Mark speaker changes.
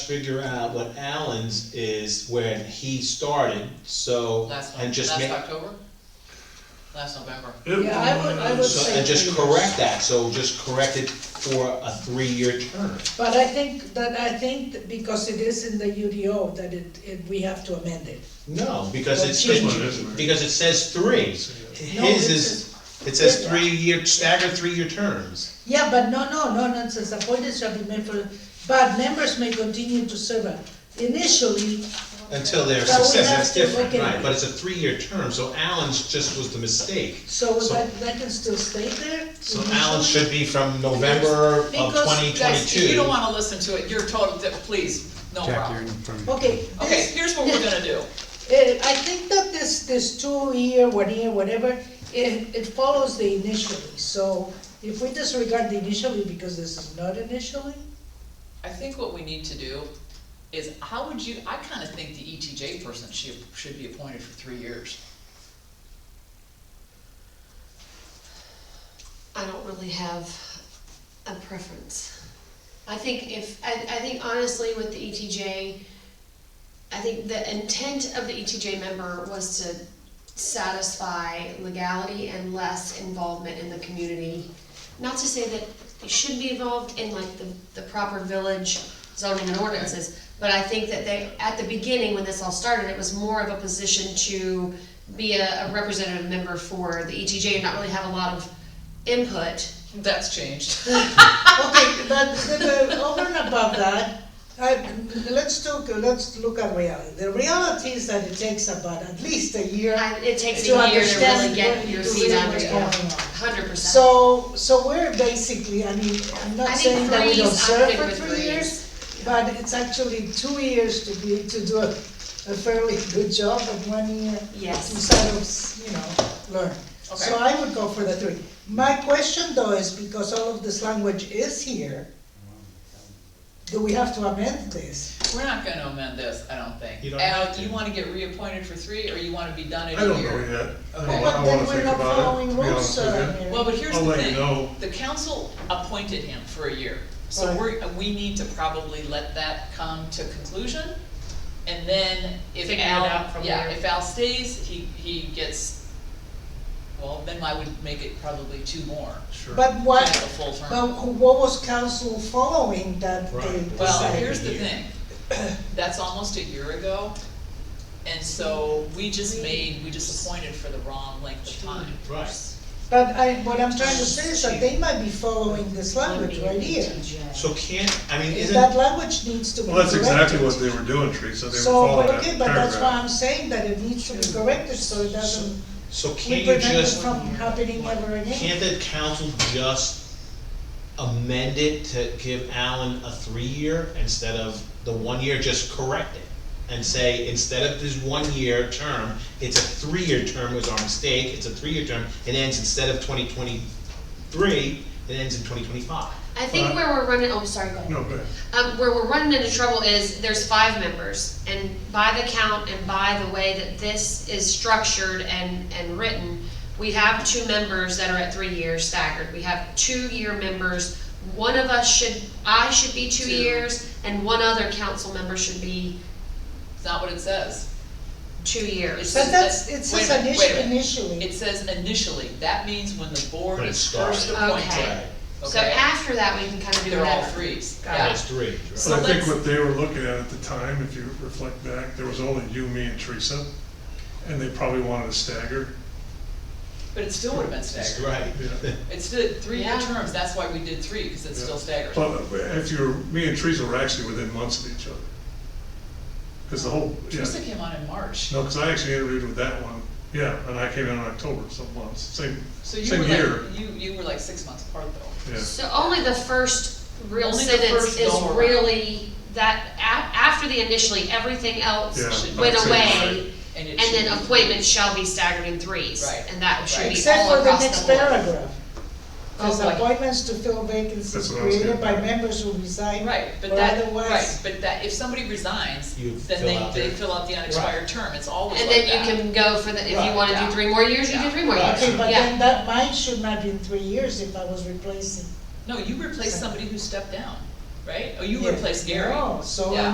Speaker 1: figure out what Alan's is when he started, so,
Speaker 2: Last,
Speaker 1: and
Speaker 2: Nov-
Speaker 1: just
Speaker 2: last
Speaker 1: make,
Speaker 2: October? Last November.
Speaker 3: Yeah, I would, I would
Speaker 1: so,
Speaker 3: say.
Speaker 1: and just
Speaker 3: three
Speaker 1: correct
Speaker 3: years.
Speaker 1: that, so just correct it for a three-year term.
Speaker 3: But I think, that I think, that because it is in the UDO, that it, it, we have to amend it.
Speaker 1: No, because it's,
Speaker 3: Well,
Speaker 4: it's- This one is.
Speaker 1: because it says three.
Speaker 3: No,
Speaker 1: His
Speaker 3: it
Speaker 1: is, it says three-year, staggered three-year terms.
Speaker 3: Yeah, but no, no, no nonsense, appointments shall be made for, but members may continue to serve initially,
Speaker 1: Until they're
Speaker 3: But we
Speaker 1: successful,
Speaker 3: have
Speaker 1: that's
Speaker 3: to look
Speaker 1: different,
Speaker 3: at
Speaker 1: right,
Speaker 3: it.
Speaker 1: but it's a three-year term, so Alan's just was the mistake.
Speaker 3: so
Speaker 1: So-
Speaker 3: that, that can still stay there?
Speaker 1: So Alan should be from November of
Speaker 3: Because-
Speaker 1: twenty
Speaker 2: Guys, if you don't
Speaker 1: twenty-two.
Speaker 2: wanna listen to it, you're told, that- please, no
Speaker 4: Jack, you're in
Speaker 2: problem.
Speaker 4: front of
Speaker 3: Okay.
Speaker 2: Okay,
Speaker 3: this-
Speaker 2: here's what we're gonna do.
Speaker 3: Eh, I think that this, this two year, one year, whatever, it, it follows the initially, so if we disregard the initially because this is not initially,
Speaker 2: I think what we need to do is, how would you, I kinda think the ETJ person should, should be appointed for three years.
Speaker 5: I don't really have a preference. I think if, I, I think honestly with the ETJ, I think the intent of the ETJ member was to satisfy legality and less involvement in the community. Not to say that they should be involved in like the, the proper village zoning and ordinances, but I think that they, at the beginning, when this all started, it was more of a position to be a, a representative member for the ETJ and not really have a lot of input.
Speaker 2: That's changed.
Speaker 3: Okay, but the- the- over and above that, I, let's talk, let's look at reality. The reality is that it takes about at least a year
Speaker 5: I- It takes
Speaker 3: to
Speaker 5: a year to
Speaker 3: understand
Speaker 5: really get
Speaker 3: what-
Speaker 5: your
Speaker 3: to
Speaker 5: feet
Speaker 3: really
Speaker 5: under
Speaker 3: what's
Speaker 5: you.
Speaker 3: going on.
Speaker 5: Hundred percent.
Speaker 3: So, so we're basically, I mean, I'm
Speaker 5: I
Speaker 3: not
Speaker 5: think
Speaker 3: saying that we don't
Speaker 5: threes, I'm
Speaker 3: serve
Speaker 5: good
Speaker 3: for
Speaker 5: with
Speaker 3: three
Speaker 5: threes.
Speaker 3: years, but it's actually two years to be, to do a, a fairly good job and one year to
Speaker 5: Yes.
Speaker 3: sort of, you know, learn. So I would go for the three. My question though is, because all of this language is here, do we have to amend this?
Speaker 2: We're not gonna amend this, I don't
Speaker 1: You
Speaker 2: think.
Speaker 1: don't have
Speaker 2: Al,
Speaker 1: to.
Speaker 2: you wanna get reappointed for three, or you wanna be done in
Speaker 4: I
Speaker 2: a
Speaker 4: don't know
Speaker 2: year?
Speaker 4: yet. I
Speaker 2: Okay.
Speaker 4: don't-
Speaker 3: But
Speaker 4: I
Speaker 3: then
Speaker 4: wanna
Speaker 3: we're
Speaker 4: think
Speaker 3: not
Speaker 4: about it,
Speaker 3: following
Speaker 4: to be honest
Speaker 3: rules,
Speaker 4: with you.
Speaker 3: uh, Mary.
Speaker 2: Well, but here's
Speaker 1: Oh,
Speaker 4: I'll
Speaker 2: the
Speaker 4: let you
Speaker 2: thing,
Speaker 4: know.
Speaker 2: the council appointed him for a year, so
Speaker 3: Right.
Speaker 2: we're, we need to probably let that come to conclusion. And then if
Speaker 5: Figure it out
Speaker 2: Al,
Speaker 5: from
Speaker 2: yeah,
Speaker 5: there.
Speaker 2: if Al stays, he, he gets, well, then I would make it probably two more,
Speaker 4: Sure.
Speaker 3: But
Speaker 2: to
Speaker 3: what,
Speaker 2: have a full term.
Speaker 3: but what was council following that they
Speaker 1: Right.
Speaker 2: Well,
Speaker 1: Decided
Speaker 2: here's
Speaker 1: a
Speaker 2: the
Speaker 1: year.
Speaker 2: thing, that's almost a year ago, and so we just made, we just appointed for the wrong length of time.
Speaker 1: Right.
Speaker 3: But I, what I'm trying to say is that they might be following this language right here.
Speaker 1: So can't, I mean,
Speaker 3: Is
Speaker 1: isn't.
Speaker 3: That language needs to be
Speaker 4: Well, that's
Speaker 3: corrected.
Speaker 4: exactly what they were doing, Teresa, they were
Speaker 3: So,
Speaker 4: following
Speaker 3: but
Speaker 4: that
Speaker 3: okay, but that's why
Speaker 4: paragraph.
Speaker 3: I'm saying that it needs to be corrected, so it doesn't,
Speaker 1: So
Speaker 3: we
Speaker 1: can't you
Speaker 3: prevent it
Speaker 1: just,
Speaker 3: from happening ever again.
Speaker 1: can't the council just amend it to give Alan a three-year instead of the one-year, just correct it? And say, instead of this one-year term, it's a three-year term, was our mistake, it's a three-year term, it ends instead of twenty twenty-three, it ends in twenty twenty-five.
Speaker 5: I think where we're running, oh, sorry, go ahead.
Speaker 4: No, but,
Speaker 5: Um, where we're running into trouble is there's five members, and by the count and by the way that this is structured and, and written, we have two members that are at three years staggered, we have two-year members, one of us should, I should be two
Speaker 2: Two.
Speaker 5: years, and one other council member should be
Speaker 2: It's not what it says.
Speaker 5: two years.
Speaker 3: But that's, it
Speaker 2: Wait a
Speaker 3: says
Speaker 2: minute, wait a
Speaker 3: initially,
Speaker 2: minute.
Speaker 3: initially,
Speaker 2: It says initially, that means when the board
Speaker 1: When it
Speaker 2: is first
Speaker 1: started.
Speaker 2: appointed,
Speaker 5: Okay.
Speaker 1: Right,
Speaker 5: So
Speaker 2: okay?
Speaker 5: after that, we can kind of do
Speaker 2: They're all
Speaker 5: whatever.
Speaker 2: threes,
Speaker 5: Got
Speaker 2: yeah.
Speaker 1: that's three. right?
Speaker 2: So
Speaker 4: but I think
Speaker 2: let's-
Speaker 4: what they were looking at at the time, if you reflect back, there was only you, me, and Teresa, and they probably wanted to stagger.
Speaker 2: But it still would have been
Speaker 1: That's
Speaker 2: staggered.
Speaker 1: right.
Speaker 4: Yeah.
Speaker 2: It's still three-year
Speaker 5: Yeah.
Speaker 2: terms, that's why we did three, because it's still staggered.
Speaker 4: But if you're, me and Teresa were actually within months of each other. Cause the whole, yeah,
Speaker 2: Teresa came on in March,
Speaker 4: no, cause I actually interviewed with that one, yeah, and I came in in October, some months, same,
Speaker 2: so you were
Speaker 4: same year.
Speaker 2: like, you, you were like six months apart though.
Speaker 4: Yeah.
Speaker 5: So only the first real
Speaker 2: Only the
Speaker 5: sentence
Speaker 2: first
Speaker 5: is
Speaker 2: go around.
Speaker 5: really that, a- after the initially, everything else
Speaker 4: Yeah,
Speaker 5: went
Speaker 4: I'd say you're
Speaker 5: away.
Speaker 4: right.
Speaker 2: it
Speaker 5: And
Speaker 2: should
Speaker 5: then
Speaker 2: be-
Speaker 5: appointments shall be staggered in threes.
Speaker 2: Right.
Speaker 5: And that should be
Speaker 3: except
Speaker 5: all
Speaker 3: for the
Speaker 5: across
Speaker 3: next
Speaker 5: the board.
Speaker 3: paragraph.
Speaker 5: Oh,
Speaker 3: Says
Speaker 5: boy.
Speaker 3: appointments to fill
Speaker 4: That's
Speaker 3: vacancies
Speaker 4: what I was
Speaker 3: created by
Speaker 4: getting at.
Speaker 3: members who resign
Speaker 2: Right, but
Speaker 3: or
Speaker 2: that, right,
Speaker 3: otherwise.
Speaker 2: but that, if somebody resigns,
Speaker 1: You fill
Speaker 2: then
Speaker 1: out
Speaker 2: they, they
Speaker 1: their-
Speaker 2: fill out the unexpired term, it's always
Speaker 5: And
Speaker 2: like
Speaker 5: then you
Speaker 2: that.
Speaker 5: can go for the, if
Speaker 3: Right,
Speaker 5: you wanna
Speaker 2: yeah.
Speaker 5: do three more years, you
Speaker 2: Yeah.
Speaker 5: do three more
Speaker 1: Right.
Speaker 5: years.
Speaker 3: Okay, but
Speaker 5: Yeah.
Speaker 3: then that, mine should not be in three years if I was replacing.
Speaker 2: No, you replaced somebody who stepped down, right? Oh, you
Speaker 3: Yeah.
Speaker 2: replaced Gary.
Speaker 3: No, so
Speaker 2: Yeah.